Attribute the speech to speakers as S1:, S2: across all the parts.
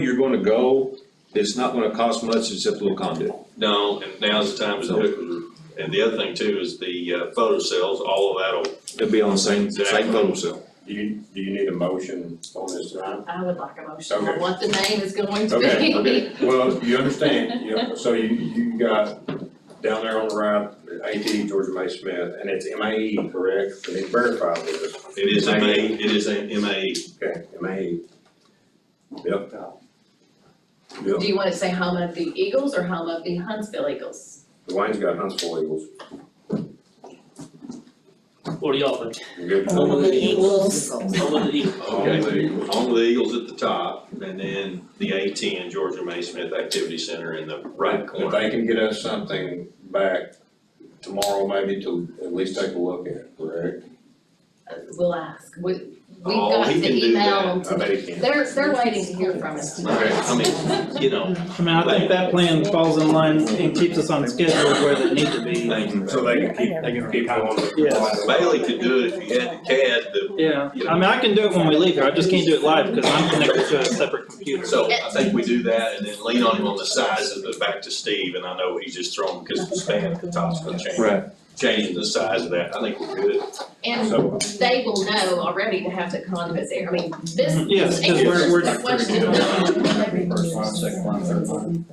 S1: you're gonna go, it's not gonna cost much except a little conduit.
S2: No, and now's the time to do it, and the other thing too is the uh, photo cells, all of that'll,
S1: It'll be on the same, same photo cell.
S3: Do you, do you need a motion on this tonight?
S4: I would like a motion
S3: Okay.
S4: on what the name is going to be.
S3: Okay, okay, well, you understand, you know, so you, you got down there on the right, AT Georgia May Smith, and it's M A E, correct? And it's verified with us,
S2: it is a MA, it is a MAE.
S3: okay, M A E. Yep.
S4: Do
S3: Yep,
S4: you wanna say home of the Eagles or home of the Huntsville Eagles?
S3: Dwayne's got Huntsville Eagles,
S5: What do y'all think?
S3: you good?
S5: Home of the
S6: Eagles.
S5: Home of the Eagles.
S3: Home of the Eagles.
S2: On the Eagles at the top, and then the A ten Georgia May Smith Activity Center in the right
S3: If
S2: corner.
S3: they can get us something back tomorrow, maybe to at least take a look at, it, correct?
S4: Uh, We'll ask, we, we've
S2: Oh,
S4: got
S2: he
S4: the
S2: can do
S4: email
S2: that.
S3: I bet he can.
S4: They're, they're waiting to hear from us tonight.
S2: Okay, I mean, you know,
S5: I mean, I think that plan falls in line and keeps us on schedule where they need to be.
S2: thank you.
S3: So they can keep, they can keep on.
S5: Yes.
S2: Bailey could do it if he had the CAD, but,
S5: Yeah, I mean, I can do it when we leave here, I just can't do it live because I'm connected to a separate computer.
S2: so I think we do that and then lean on him on the size of the, back to Steve, and I know he's just thrown, because the span at the top's gonna change.
S1: Right.
S2: Changing the size of that, I think we're good.
S4: And
S3: So,
S4: they will know already to have the conduits there, I mean, this.
S5: Mm-hmm. Yes, 'cause we're- we're-
S4: The question of-
S6: First line, second line, third line.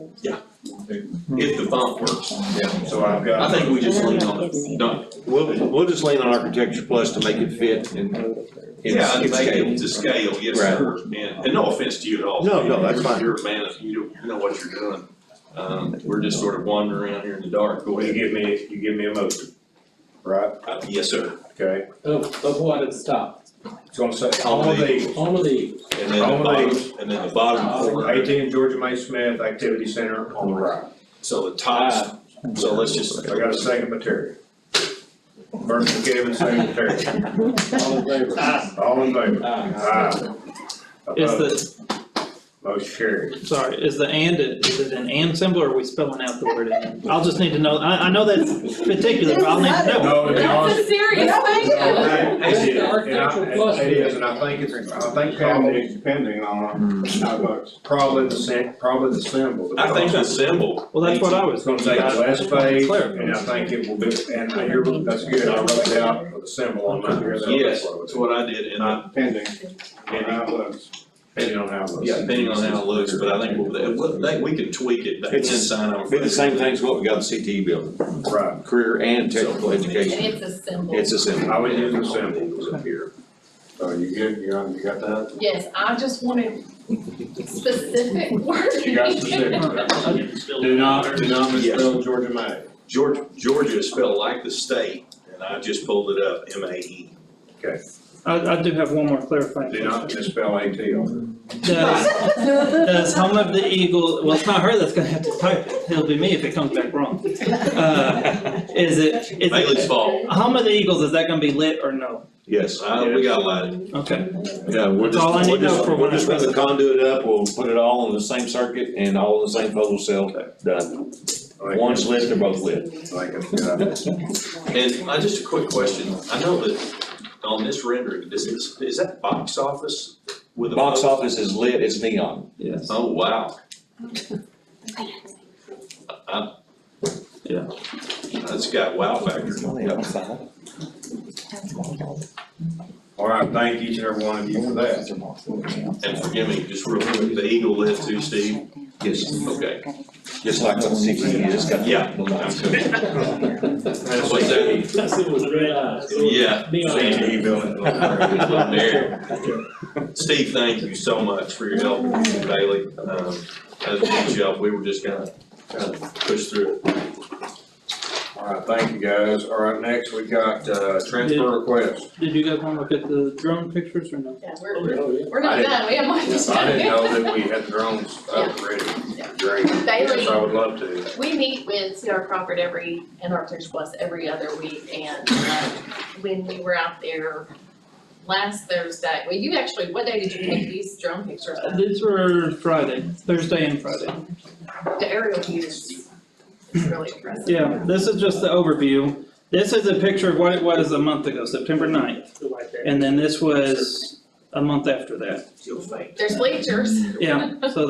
S2: If the font works,
S3: so I've got.
S2: I think we just lean on it, no,
S1: We'll, we'll just lean on Architecture Plus to make it fit and
S2: yeah,
S1: it's,
S2: and
S1: it's
S2: make
S1: scaled.
S2: it to scale, yes,
S1: Right.
S2: sir, and, and no offense to you at all.
S1: No, no, that's
S2: You're-
S1: fine.
S2: You're a man, of- you don't, you know what you're doing, um, we're just sort of wandering around here in the dark, go
S3: Well, you
S2: ahead,
S3: give me, you give me a motion, right?
S2: Uh, yes, sir.
S3: Okay,
S7: Of, of what at the top?
S3: it's gonna say
S2: All
S3: all
S2: of
S3: of these.
S7: Home of the Eagles.
S2: And then the
S3: All of
S2: bottom,
S3: these.
S2: and then the bottom corner,
S3: Eighteen Georgia May Smith Activity Center on the right.
S2: so the top, so let's just,
S3: I got a second by Terry. Burton McKibben, second by Terry.
S7: All in favor?
S3: All in favor?
S7: Aye.
S3: Aye.
S5: Is
S3: Opposed?
S5: the,
S3: Motion carried.
S5: sorry, is the and, is it an and symbol or are we spelling out the word and? I'll just need to know, I, I know that's particular, but I'll need to know.
S3: No, to be honest.
S4: That's a serious thing, though.
S3: It is, and
S7: Architectural
S3: I,
S7: plus.
S3: it is, and I think it's, I think probably,
S6: Depending on.
S3: probably the same, probably the symbol.
S2: I think the symbol.
S5: Well, that's what I
S3: It's
S5: was,
S3: gonna take the last page,
S5: Clarify.
S3: and I think it will be, and I hear, that's good, I wrote it out with a symbol on my, here's what
S2: Yes,
S3: it
S2: that's
S3: was.
S2: what I did, and I,
S6: Depending on
S3: And,
S6: how it looks.
S3: depending on how it looks.
S2: yeah, depending on how it looks, but I think, we'll- we'll- that- we can tweak it, that
S1: It's-
S2: end sign on.
S1: Be the same thing as what we got at CTE building,
S3: Right,
S1: career and technical education.
S4: And it's a symbol.
S1: It's a symbol.
S3: I would use the symbol up here. So you good, you got, you got that?
S4: Yes, I just wanted specific wording.
S3: You got specific. Do not, do not misspell Georgia May.
S2: Georgia, Georgia is spelled like the state, and I just pulled it up, M A E.
S5: I, I do have one more clarifying
S3: Do
S5: question.
S3: not misspell AT on
S5: Does, does Home Uh, of the Eagle, well, it's not her that's gonna have to type it, it'll be me if it comes back wrong. Uh, Is it, is it?
S2: Bailey's fault.
S5: Home of the Eagles, is that gonna be lit or no?
S1: Yes,
S2: Uh, we got a lot.
S5: Okay,
S1: yeah, we're
S5: That's all I
S1: just,
S5: need
S1: we're
S5: to know
S1: just,
S5: for
S1: we're
S5: when I
S1: just gonna
S5: present.
S1: conduit up, we'll put it all on the same circuit and all in the same photo cell, done.
S3: it.
S1: One's lit, they're both lit.
S3: I think it's a good idea.
S2: And I, just a quick question, I know that on this rendering, this is, is that box office with a?
S1: Box
S2: photo?
S1: office is lit, it's neon.
S5: yes.
S2: Oh, wow. Uh,
S5: Yeah.
S2: That's got wow factor.
S3: All right, thank each and every one of you for that.
S2: And forgive me, just real quick, the eagle lift too, Steve?
S1: Yes,
S2: Okay.
S1: just like on CTE, it's got.
S2: Yeah.
S3: That's
S2: What's that?
S7: That's it with red uh, eyes.
S2: Yeah.
S7: Neon.
S3: CTE building.
S2: There. Steve, thank you so much for your help, Bailey. Um, as much help, we were just gonna, kind of push through it.
S3: All right, thank you guys. All right, next we got, uh, transfer request.
S5: Did you guys wanna look at the drone pictures or no?
S4: Yeah, we're, we're,
S7: Oh, yeah.
S4: we're not done, we have more to
S3: I didn't
S4: say.
S3: know that we had drones up ready. Great.
S4: Bailey.
S3: Yes, I would love to.
S4: We meet with C.R. Crawford every, and Architects Plus every other week, and, uh, when we were out there last Thursday, well, you actually, what day did you take these drone pictures
S5: Uh,
S4: of?
S5: These were Friday, Thursday and Friday.
S4: The aerial views is really impressive.
S5: Yeah, this is just the overview. This is a picture of what it was a month ago, September 9th. And then this was a month after that.
S2: You'll faint.
S4: There's bleachers.
S5: Yeah, so